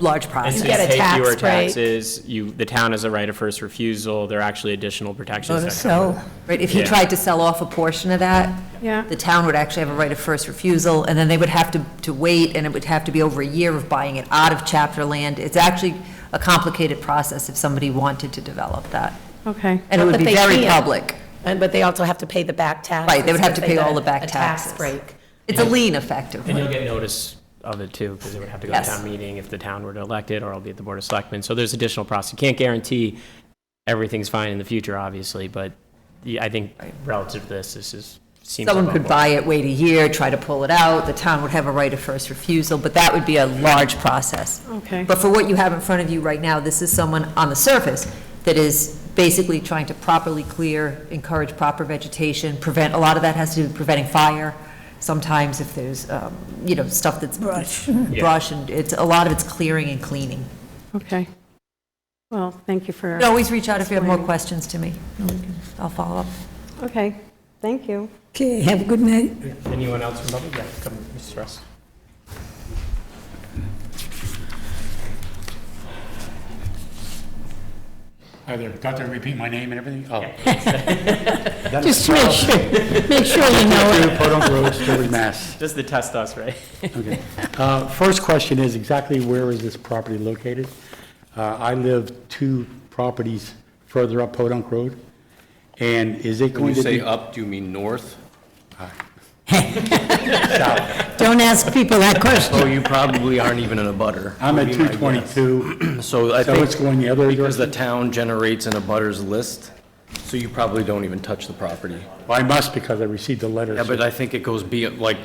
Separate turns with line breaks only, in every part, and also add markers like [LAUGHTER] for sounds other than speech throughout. large
And
prize.
so
get a
take
tax
fewer
break.
taxes, you, the town has a right of first refusal, there are actually additional protections that come.
So,
Right, if he
Yeah.
tried to sell off a portion of that,
Yeah.
the town would actually have a right of first refusal, and then they would have to, to wait, and it would have to be over a year of buying it out of chapter land. It's actually a complicated process if somebody wanted to develop that,
Okay.
and it
Not
would
that
be
they
very
can't.
public.
and- but they also have to pay the back taxes.
Right, they would have
if
to pay
got
all the
a-
back
A
taxes.
tax break.
It's a lien
And you'll
effectively.
get notice of it too, because it would have to go to
Yes.
town meeting if the town were to elect it, or it'll be at the Board of Selectmen. So there's additional process. You can't guarantee everything's fine in the future, obviously, but the- I think relative to this, this is, seems.
Someone
above
could
board.
buy it, wait a year, try to pull it out, the town would have a right of first refusal, but that would be a large process.
Okay.
But for what you have in front of you right now, this is someone on the surface that is basically trying to properly clear, encourage proper vegetation, prevent, a lot of that has to do with preventing fire. Sometimes if there's, um, you know, stuff
[LAUGHS]
that's. Brush. Brush, and it's, a lot of it's clearing and cleaning.
Okay. Well, thank you for,
You can always reach out if you have more
Explain.
questions to me. I'll follow up.
okay, thank you.
Okay, have a good night.
Anyone else from public? Yeah, come, Mr. Russ.
Hi there, got to repeat my name and everything? Oh.
Just to make sure, make sure you know it.
Podunk Road,
[LAUGHS]
Sturbridge, Mass.
Just to test us, right?
Okay. Uh, First question is exactly where is this property located? Uh, I live two properties further up Podunk Road, and is it
When
going
you
to
say
be?
up, do you mean north?
Don't ask people that question.
Oh, you probably aren't even in a butter.
I'm at
would be my
222,
guess. So I
So
think.
it's going the other
Because the
direction?
town generates an abutters list, so you probably don't even touch the property.
Well, I must because I received a letter.
Yeah, but I think it goes be, like,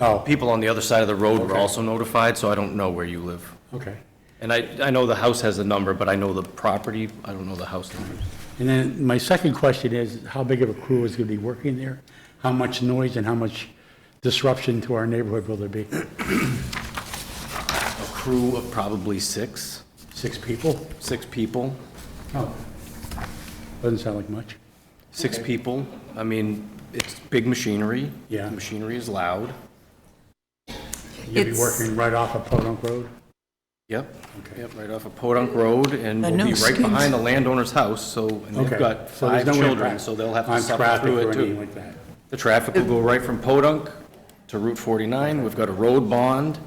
Oh,
people on the other side of the road were
Okay.
also notified, so I don't know where you live.
okay.
And I, I know the house has a number, but I know the property, I don't know the house numbers.
And then my second question is, how big of a crew is going to be working there? How much noise and how much disruption to our neighborhood will there be?
A crew of probably six,
Six people?
six people,
Oh, doesn't sound like much.
six people. I mean, it's big machinery.
Yeah.
Machinery is loud.
You'll be
It's-
working right off of Podunk Road?
Yep, yep, right off of Podunk Road, and
The
we'll
no
be right
skins.
behind the landowner's house, so, and
Okay.
they've got
So there's
five
no
children,
impact
so they'll have to
on
suffer
traffic
through
or
it
anything
too.
like that.
The traffic will go right from Podunk to Route 49, we've got a road bond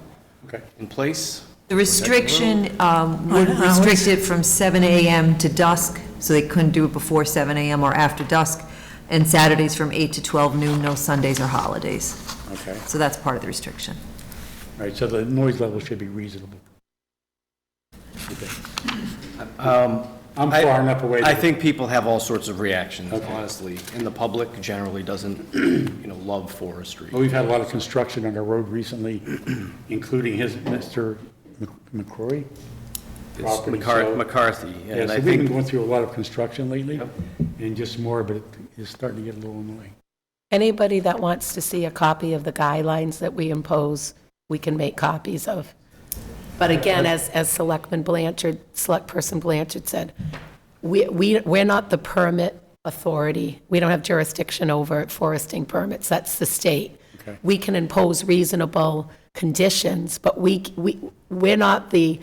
Okay.
in place.
The restriction um, would
On hours?
restrict it from 7 AM to dusk, so they couldn't do it before 7 AM or after dusk, and Saturdays from 8 to 12 noon, no Sundays or holidays.
Okay,
So that's part of the restriction.
all right, so the noise level should be reasonable. Um, I'm
I-
far enough away.
I
that-
think people have all sorts of reactions, honestly, and the public generally doesn't, [CLEARS THROAT] you know, love forestry.
Well, We've had a lot of construction on our road recently, including his, Mr. Mc- McCrory?
It's
property,
McCar-
so-
McCarthy,
Yeah,
and
so
I
we've been
think,
going through a lot of construction lately, and just more, but it's starting to get a little annoying.
Anybody that wants to see a copy of the guidelines that we impose, we can make copies of. But again, as, as Selectman Blanchard, Select Person Blanchard said, we, we, we're not the permit authority. We don't have jurisdiction over foresting permits. That's the state. We can impose reasonable conditions, but we, we, we're not the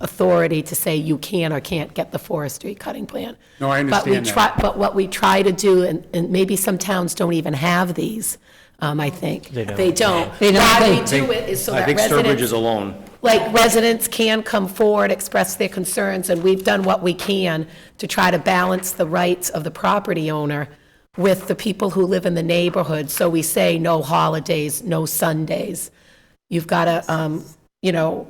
authority to say you can or can't get the forestry cutting plan.
No, I
But we
understand that.
try- but what we try to do, and, and maybe some towns don't even have these, um, I think. They don't. They don't.
They don't.
Why we
They-
do it is so
I
that
think Sturbridge is
residents,
alone.
like, residents can come forward, express their concerns, and we've done what we can to try to balance the rights of the property owner with the people who live in the neighborhood. So we say no holidays, no Sundays. You've got to, um, you know,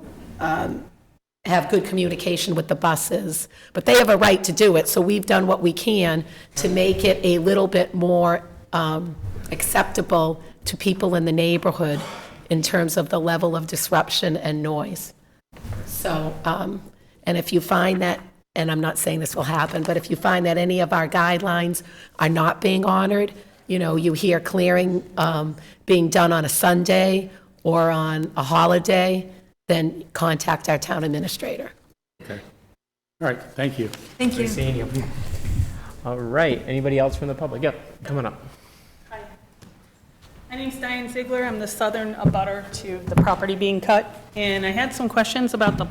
have good communication with the buses, but they have a right to do it, so we've done what we can to make it a little bit more um, acceptable to people in the neighborhood in terms of the level of disruption and noise. So, um, and if you find that, and I'm not saying this will happen, but if you find that any of our guidelines are not being honored, you know, you hear clearing um, being done on a Sunday or on a holiday, then contact our town administrator.
All right, thank you.
[LAUGHS]
Thank you.
Seeing you. All right, anybody else from the public? Yep, come on up.
My name's Diane Ziegler. I'm the southern abutter to the property being cut, and I had some questions about the